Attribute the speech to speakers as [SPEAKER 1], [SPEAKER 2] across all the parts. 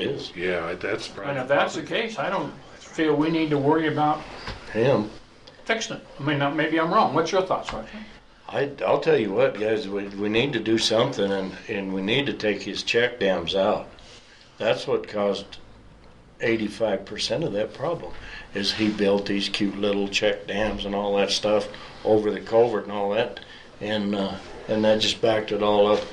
[SPEAKER 1] It is.
[SPEAKER 2] Yeah, that's
[SPEAKER 3] And if
[SPEAKER 2] probably,
[SPEAKER 3] that's the case, I don't feel we need to worry about
[SPEAKER 1] Him.
[SPEAKER 3] fixing it. I mean, now, maybe I'm wrong. What's your thoughts, Roger?
[SPEAKER 1] I, I'll tell you what, guys, we, we need to do something and, and we need to take his check dams out. That's what caused 85% of that problem is he built these cute little check dams and all that stuff over the culvert and all that. And, uh, and that just backed it all up.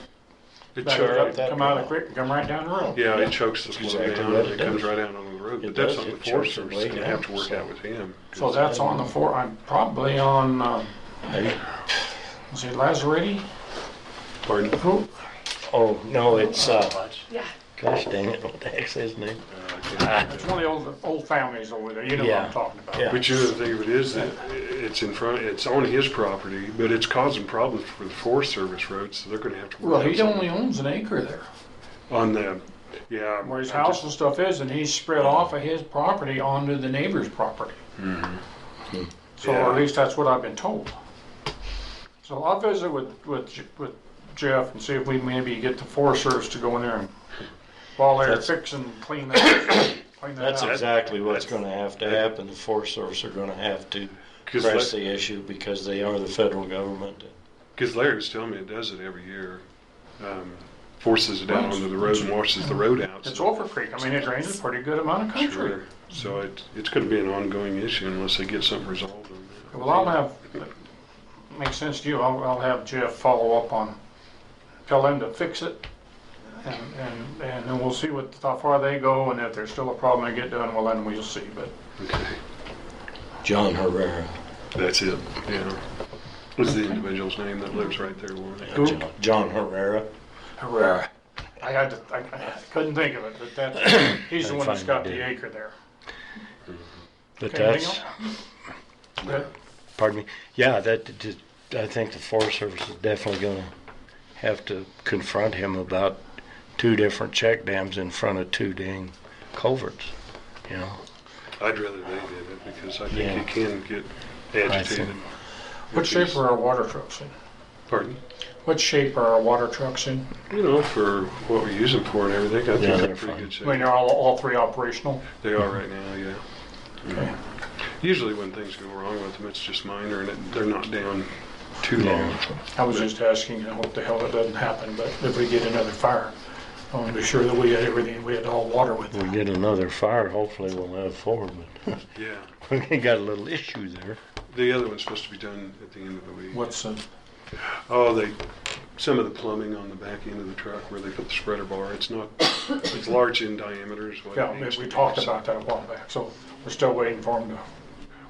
[SPEAKER 2] it
[SPEAKER 3] Back
[SPEAKER 1] Sure.
[SPEAKER 3] it
[SPEAKER 2] chokes,
[SPEAKER 3] up, Come out of the creek and come right down the road.
[SPEAKER 2] yeah, it chokes the
[SPEAKER 1] Exactly
[SPEAKER 2] flow down,
[SPEAKER 1] what
[SPEAKER 2] and
[SPEAKER 1] it
[SPEAKER 2] it comes
[SPEAKER 1] does.
[SPEAKER 2] right out on the road,
[SPEAKER 1] It
[SPEAKER 2] but that's
[SPEAKER 1] does,
[SPEAKER 2] on the
[SPEAKER 1] it
[SPEAKER 2] Forest
[SPEAKER 1] chokes the
[SPEAKER 2] Service, it's
[SPEAKER 1] blade
[SPEAKER 2] gonna have to
[SPEAKER 1] out,
[SPEAKER 2] work
[SPEAKER 1] so.
[SPEAKER 2] out with him.
[SPEAKER 3] So that's on the four, I'm probably on, uh,
[SPEAKER 1] I-
[SPEAKER 3] is it Lazaretti?
[SPEAKER 2] Pardon?
[SPEAKER 3] Who?
[SPEAKER 1] oh, no, it's, uh, gosh dang it, what the heck's his name?
[SPEAKER 2] Uh, I can't-
[SPEAKER 3] It's one of the old, old families over there. You know what
[SPEAKER 1] Yeah.
[SPEAKER 3] I'm talking about.
[SPEAKER 1] Yeah.
[SPEAKER 2] But you know, the thing of it is that it's in front, it's on his property, but it's causing problems for the Forest Service roads, so they're gonna have to. work
[SPEAKER 3] Well,
[SPEAKER 2] out
[SPEAKER 3] he
[SPEAKER 2] something.
[SPEAKER 3] only owns an acre there
[SPEAKER 2] On the, yeah.
[SPEAKER 3] where his
[SPEAKER 2] I'm just-
[SPEAKER 3] house and stuff is, and he's spread off of his property onto the neighbor's property. So
[SPEAKER 2] Yeah.
[SPEAKER 3] at least that's what I've been told. So I'll visit with, with, J- with Jeff and see if we maybe get the Forest Service to go in there and while they're
[SPEAKER 1] That's-
[SPEAKER 3] fixing, clean that, clean that
[SPEAKER 1] That's
[SPEAKER 3] out.
[SPEAKER 1] exactly what's
[SPEAKER 2] That's-
[SPEAKER 1] gonna have to happen. The Forest Service are gonna have to
[SPEAKER 2] 'Cause
[SPEAKER 1] press
[SPEAKER 2] like-
[SPEAKER 1] the issue because they are the federal government.
[SPEAKER 2] Because Larry was telling me it does it every year. Um, forces it out onto the road and washes the road out.
[SPEAKER 3] It's
[SPEAKER 2] so-
[SPEAKER 3] Wolfer Creek. I mean, it drains a pretty good amount of country.
[SPEAKER 2] Sure. So it, it's going to be an ongoing issue unless they get something resolved on that.
[SPEAKER 3] Well, I'll have, makes sense to you, I'll, I'll have Jeff follow up on, tell them to fix it. And, and, and then we'll see what, how far they go and if there's still a problem to get done, well, then we'll see. But
[SPEAKER 2] Okay.
[SPEAKER 1] John Herrera.
[SPEAKER 2] That's it. Yeah. What's the individual's name that lives right there, Warren?
[SPEAKER 3] Who?
[SPEAKER 1] John- John Herrera.
[SPEAKER 3] Herrera. I had to, I I couldn't think of it, but that, he's the one that's got the acre there.
[SPEAKER 4] But
[SPEAKER 3] Okay, anything
[SPEAKER 4] that's,
[SPEAKER 3] else? Good.
[SPEAKER 4] pardon me, yeah, that, that- I think the Forest Service is definitely gonna have to confront him about two different check dams in front of two dang culverts, you know?
[SPEAKER 2] I'd rather they did it because I think
[SPEAKER 4] Yeah.
[SPEAKER 2] it can get agitated.
[SPEAKER 4] think-
[SPEAKER 3] What shape are our water trucks in?
[SPEAKER 2] Pardon?
[SPEAKER 3] What shape are our water trucks in?
[SPEAKER 2] You know, for what we use them for and everything, I think
[SPEAKER 4] Yeah,
[SPEAKER 2] they're
[SPEAKER 4] they're
[SPEAKER 2] pretty
[SPEAKER 4] fine.
[SPEAKER 2] good
[SPEAKER 3] I
[SPEAKER 2] shape.
[SPEAKER 3] mean, they're all, all three operational?
[SPEAKER 2] They are right now, yeah. Usually when things go wrong with them, it's just minor and it, they're not down too long.
[SPEAKER 3] I was just asking, I hope the hell it doesn't happen, but if we get another fire, I want to be sure that we had everything, we had all water with
[SPEAKER 4] We
[SPEAKER 1] Mm-hmm.
[SPEAKER 3] it.
[SPEAKER 4] get another fire, hopefully we'll have four, but
[SPEAKER 2] Yeah.
[SPEAKER 4] we got a little issue there.
[SPEAKER 2] The other one's supposed to be done at the end of the week.
[SPEAKER 3] What's, uh, the-
[SPEAKER 2] Oh, they, some of the plumbing on the back end of the truck where they put the spreader bar, it's not, it's large in diameter is what it
[SPEAKER 3] yeah,
[SPEAKER 2] needs
[SPEAKER 3] we
[SPEAKER 2] to be.
[SPEAKER 3] talked about that a while back, so we're still waiting for them to,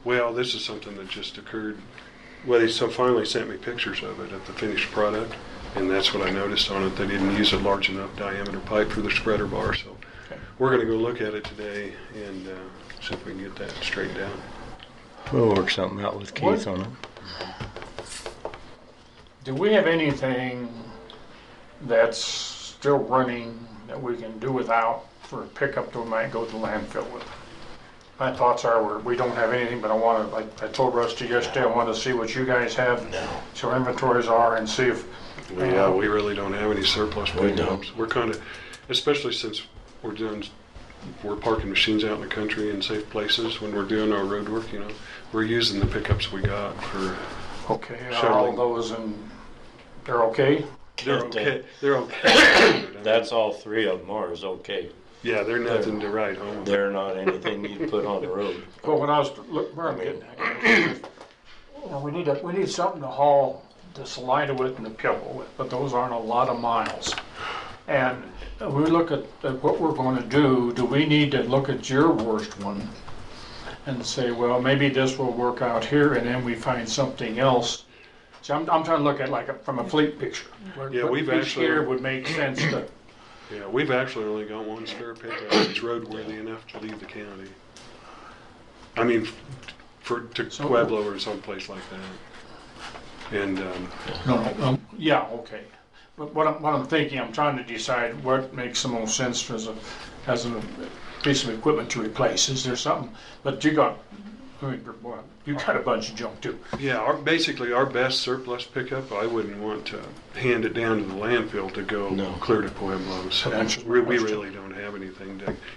[SPEAKER 2] Well, this is something that just occurred, well, they so finally sent me pictures of it, of the finished product, and that's what I noticed on it, they didn't use a large enough diameter pipe for the spreader bar, so
[SPEAKER 3] Okay.
[SPEAKER 2] we're gonna go look at it today and, uh, see if we can get that straightened out.
[SPEAKER 4] We'll work something out with Keith
[SPEAKER 3] What?
[SPEAKER 4] on it.
[SPEAKER 3] do we have anything that's still running that we can do without for a pickup that we might go to the landfill with? My thoughts are, we're- we don't have anything, but I want to, like I told Rusty yesterday, I wanted to see what you guys have, so inventories are, and see if
[SPEAKER 2] Yeah, we really don't have any surplus
[SPEAKER 1] We
[SPEAKER 2] pickups. We're kind of, especially since we're doing, we're parking machines out in the country in safe places when we're doing our road work, you know. We're using the pickups we got for,
[SPEAKER 3] Okay, are
[SPEAKER 2] Sure.
[SPEAKER 3] all those and they're okay?
[SPEAKER 2] they're
[SPEAKER 1] Can't, uh,
[SPEAKER 2] okay, they're okay.
[SPEAKER 1] That's all three of them are is okay.
[SPEAKER 2] Yeah, they're nothing to write home about.
[SPEAKER 1] They're not anything you put on the road.
[SPEAKER 3] Well, when I was, look, where I'm getting at. Well, we need a, we need something to haul the Salida with and the Pebble with, but those aren't a lot of miles. And we look at, at what we're gonna do, do we need to look at your worst one? And say, well, maybe this will work out here and then we find something else. So I'm, I'm trying to look at like a- from a fleet picture. where-
[SPEAKER 2] Yeah,
[SPEAKER 3] what
[SPEAKER 2] we've
[SPEAKER 3] each
[SPEAKER 2] actually-
[SPEAKER 3] year Would make sense to.
[SPEAKER 2] Yeah, we've actually only got one spare pickup that's roadworthy enough to leave the county. I mean, for, to
[SPEAKER 3] So-
[SPEAKER 2] Pueblo or someplace like that. And, um,
[SPEAKER 3] No, no, um, yeah, okay. But what I'm, what I'm thinking, I'm trying to decide what makes the most sense as a, as a piece of equipment to replace. Is there something, but you got, food, but, well, you got a bunch of junk too.
[SPEAKER 2] Yeah, our, basically our best surplus pickup, I wouldn't want to hand it down to the landfill to go
[SPEAKER 1] No.
[SPEAKER 2] clear to Pueblo. So
[SPEAKER 3] That's my
[SPEAKER 2] we we
[SPEAKER 3] question.
[SPEAKER 2] really don't have anything to